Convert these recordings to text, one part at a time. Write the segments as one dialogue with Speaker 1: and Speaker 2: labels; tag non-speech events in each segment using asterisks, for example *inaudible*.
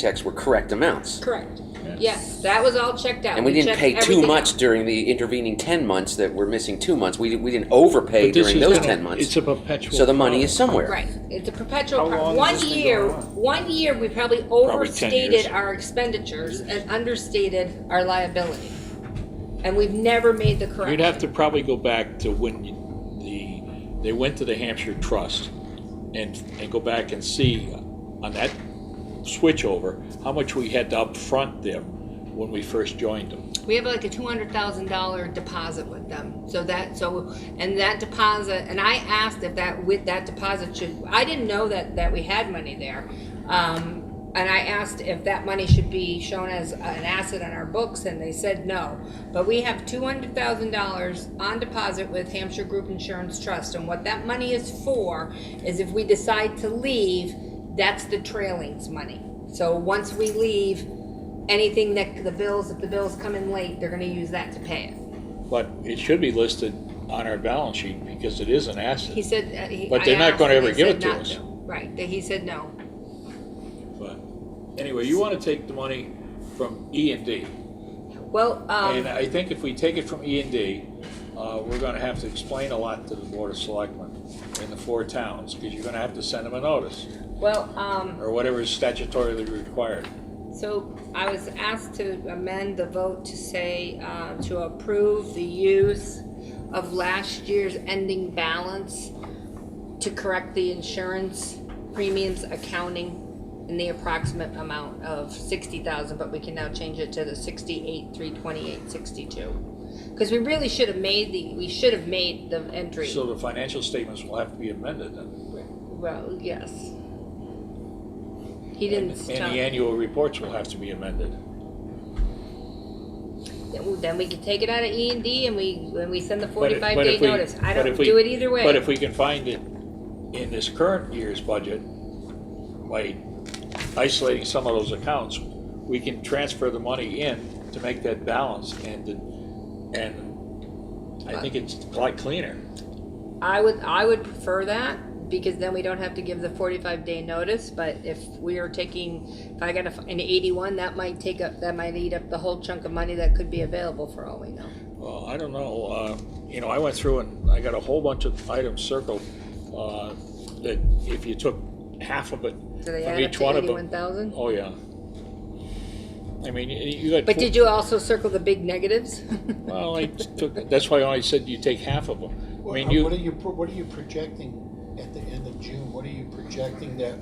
Speaker 1: checks were correct amounts.
Speaker 2: Correct. Yes, that was all checked out.
Speaker 1: And we didn't
Speaker 2: checked
Speaker 1: pay too
Speaker 2: everything
Speaker 1: much
Speaker 2: out.
Speaker 1: during the intervening ten months that were missing two months. We, we didn't overpay
Speaker 3: But this
Speaker 1: during
Speaker 3: is
Speaker 1: those
Speaker 3: not a-
Speaker 1: ten months.
Speaker 3: It's a perpetual.
Speaker 1: So the money is somewhere.
Speaker 2: Right, it's a perpetual,
Speaker 4: How
Speaker 2: pro-
Speaker 4: long has
Speaker 2: one
Speaker 4: this been
Speaker 2: year,
Speaker 4: going on?
Speaker 2: one year, we probably
Speaker 3: 10
Speaker 2: overstated
Speaker 3: years.
Speaker 2: our expenditures and understated our liability. And we've never made the correction.
Speaker 3: You'd have to probably go back to when you- the, they went to the Hampshire Trust and, and go back and see on that switchover, how much we had to upfront them when we first joined them.
Speaker 2: We have like a two hundred thousand dollar deposit with them, so that, so, and that deposit, and I asked if that, with that deposit should, I didn't know that, that we had money there. Um, and I asked if that money should be shown as an asset on our books, and they said no. But we have two hundred thousand dollars on deposit with Hampshire Group Insurance Trust, and what that money is for is if we decide to leave, that's the trailings money. So once we leave, anything that the bills, if the bills come in late, they're gonna use that to pay it.
Speaker 3: But it should be listed on our balance sheet because it is an
Speaker 2: He
Speaker 3: asset.
Speaker 2: said, uh, he.
Speaker 3: But they're
Speaker 2: I
Speaker 3: not
Speaker 2: asked
Speaker 3: gonna
Speaker 2: and
Speaker 3: ever
Speaker 2: he
Speaker 3: give
Speaker 2: said
Speaker 3: it to
Speaker 2: not
Speaker 3: us.
Speaker 2: Right, that he said no.
Speaker 3: But Anyway, you want to take the money from E and D.
Speaker 2: Well,
Speaker 3: And
Speaker 2: um,
Speaker 3: I think if we take it from E and D, uh, we're gonna have to explain a lot to the Board of Selectmen in the four towns, because you're gonna have to send them a notice,
Speaker 2: well, um,
Speaker 3: or whatever is statutorily required.
Speaker 2: so I was asked to amend the vote to say, uh, to approve the use of last year's ending balance to correct the insurance premiums accounting in the approximate amount of sixty thousand, but we can now change it to the sixty-eight, three twenty-eight, sixty-two. Cause we really should have made the, we should have made the entry,
Speaker 3: So the financial statements will have to be amended then,
Speaker 2: well, yes. He didn't
Speaker 3: and
Speaker 2: tell-
Speaker 3: the annual reports will have to be amended.
Speaker 2: then then we can take it out of E and D and we, when we send the
Speaker 3: But if-
Speaker 2: forty-five
Speaker 3: but
Speaker 2: day
Speaker 3: if we-
Speaker 2: notice, I
Speaker 3: but
Speaker 2: don't
Speaker 3: if we-
Speaker 2: do it either way.
Speaker 3: But if we can find it in this current year's budget, by isolating some of those accounts, we can transfer the money in to make that balance and, and I think it's a lot cleaner.
Speaker 2: I would, I would prefer that, because then we don't have to give the forty-five day notice, but if we are taking, if I got a f an eighty-one, that might take up, that might eat up the whole chunk of money that could be available for all we know.
Speaker 3: Well, I don't know, uh, you know, I went through and I got a whole bunch of items circled, uh, that if you took half of it
Speaker 2: Do they
Speaker 3: from
Speaker 2: add up
Speaker 3: each
Speaker 2: to
Speaker 3: one of them.
Speaker 2: eighty-one thousand?
Speaker 3: Oh, yeah. I mean, y- you got.
Speaker 2: But
Speaker 3: four-
Speaker 2: did you also circle the big negatives? *laughs*
Speaker 3: Well, I took, that's why I said you take half of them. I
Speaker 5: What
Speaker 3: mean,
Speaker 5: what are
Speaker 3: you,
Speaker 5: you, pro- what are you projecting at the end of June? What are you projecting that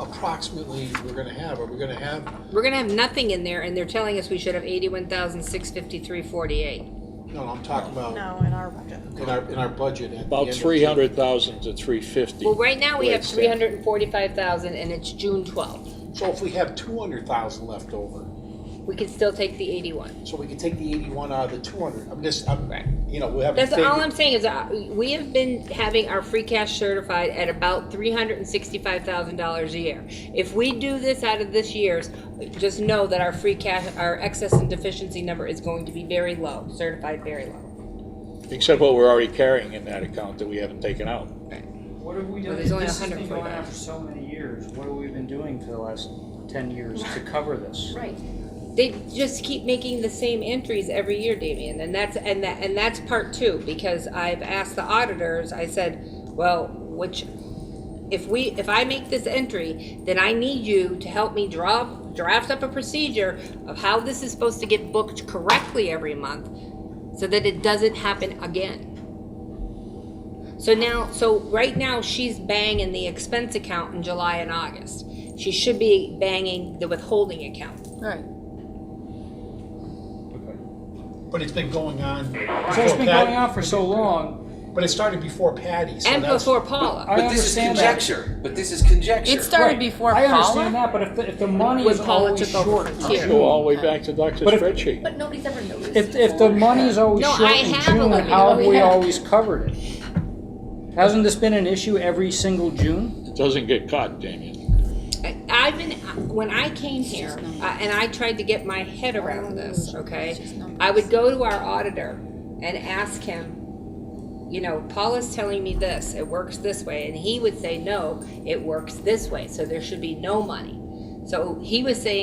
Speaker 5: approximately we're gonna have? Are we gonna have,
Speaker 2: We're gonna have nothing in there, and they're telling us we should have eighty-one thousand, six fifty-three, forty-eight.
Speaker 5: no, I'm talking about
Speaker 6: No, in our budget.
Speaker 5: in our, in our budget at the end
Speaker 3: about
Speaker 5: of June.
Speaker 3: three hundred thousand to three fifty.
Speaker 2: Well, right now, we have three hundred and forty-five thousand, and it's June twelfth.
Speaker 5: So if we have two hundred thousand left over,
Speaker 2: We can still take the eighty-one.
Speaker 5: so we can take the eighty-one out of the two hundred, I'm just, I'm, you know, we have.
Speaker 2: That's all I'm saying is uh, we have been having our free cash certified at about three hundred and sixty-five thousand dollars a year. If we do this out of this year's, just know that our free cash, our excess and deficiency number is going to be very low, certified very low.
Speaker 3: Except what we're already carrying in that account that we haven't taken out.
Speaker 4: What have we
Speaker 2: Well,
Speaker 4: done?
Speaker 2: there's only
Speaker 4: This has been
Speaker 2: 140
Speaker 4: going on for so many years. What have we been doing for the last ten years to cover this?
Speaker 2: Right. They just keep making the same entries every year, Damien, and that's, and that, and that's part two, because I've asked the auditors, I said, well, which, if we, if I make this entry, then I need you to help me draw, draft up a procedure of how this is supposed to get booked correctly every month, so that it doesn't happen again. So now, so right now, she's banging the expense account in July and August. She should be banging the withholding account.
Speaker 6: Right.
Speaker 5: But it's been going on.
Speaker 4: So it's been going on for so long.
Speaker 5: But it started before Patty, so
Speaker 2: And
Speaker 5: that's-
Speaker 2: before Paula.
Speaker 4: I
Speaker 1: But this is
Speaker 4: understand that.
Speaker 1: conjecture. But this is conjecture.
Speaker 6: It started
Speaker 4: Right.
Speaker 6: before
Speaker 4: I understand
Speaker 6: Paula.
Speaker 4: that, but if the, if the money
Speaker 6: When
Speaker 4: is
Speaker 6: Paula
Speaker 4: always
Speaker 6: took over
Speaker 4: short,
Speaker 6: for
Speaker 4: in
Speaker 6: Tier.
Speaker 3: Go
Speaker 4: June,
Speaker 3: all the way back to Dr.
Speaker 4: But if-
Speaker 3: Spreadsheet.
Speaker 7: But nobody's ever noticed.
Speaker 4: if, if the money is always
Speaker 2: No,
Speaker 4: short
Speaker 2: I
Speaker 4: in
Speaker 2: have a
Speaker 4: June,
Speaker 2: limit.
Speaker 4: how have we
Speaker 2: Yeah.
Speaker 4: always covered it? Hasn't this been an issue every single June?
Speaker 3: It doesn't get caught, Damien.
Speaker 2: I- I've been, when I came here, uh, and I tried to get my head around this, okay? I would go to our auditor and ask him, you know, Paula's telling me this, it works this way, and he would say, no, it works this way, so there should be no money. So he was saying